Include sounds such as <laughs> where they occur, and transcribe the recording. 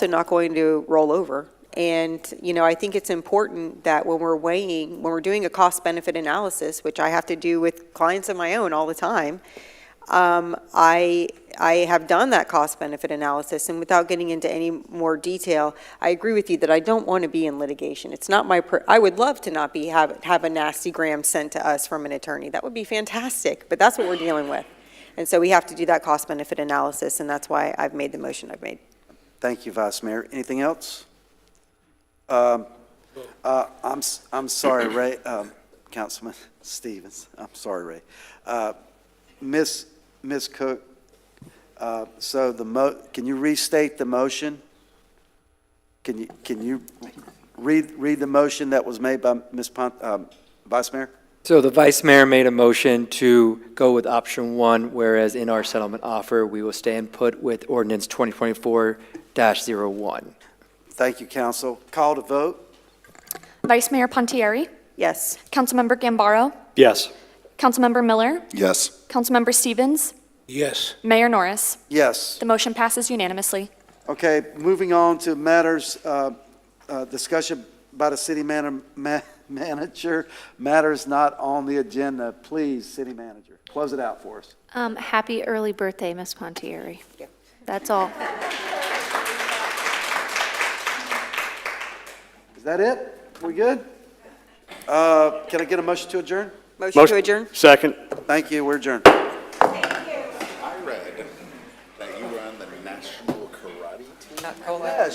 they're not going to roll over. And, you know, I think it's important that when we're weighing, when we're doing a cost-benefit analysis, which I have to do with clients of my own all the time, um, I, I have done that cost-benefit analysis, and without getting into any more detail, I agree with you that I don't want to be in litigation. It's not my, per- I would love to not be, have, have a nasty gram sent to us from an attorney. That would be fantastic, but that's what we're dealing with. And so we have to do that cost-benefit analysis, and that's why I've made the motion I've made. Thank you, Vice Mayor. Anything else? Um, uh, I'm, s- I'm sorry, Ray, um, Councilman <laughs> Stevens, I'm sorry, Ray. Uh, Ms., Ms. Cook, uh, so the mo, can you restate the motion? Can you, can you read, read the motion that was made by Ms. Pon, um, Vice Mayor? So the vice mayor made a motion to go with option one, whereas in our settlement offer, we will stand put with ordinance 2024-01. Thank you, council. Call to vote? Vice Mayor Pontieri, Yes. Councilmember Gambaro, Yes. Councilmember Miller, Yes. Councilmember Stevens, Yes. Mayor Norris. Yes. The motion passes unanimously. Okay, moving on to matters, uh, uh, discussion by the city man- ma- manager, matters not on the agenda. Please, city manager, close it out for us. Um, happy early birthday, Miss Pontieri. Yeah. That's all. Is that it? We good? Uh, Can I get a motion to adjourn? Motion to adjourn? Second. Thank you, we're adjourned. I read that you were on the national karate team.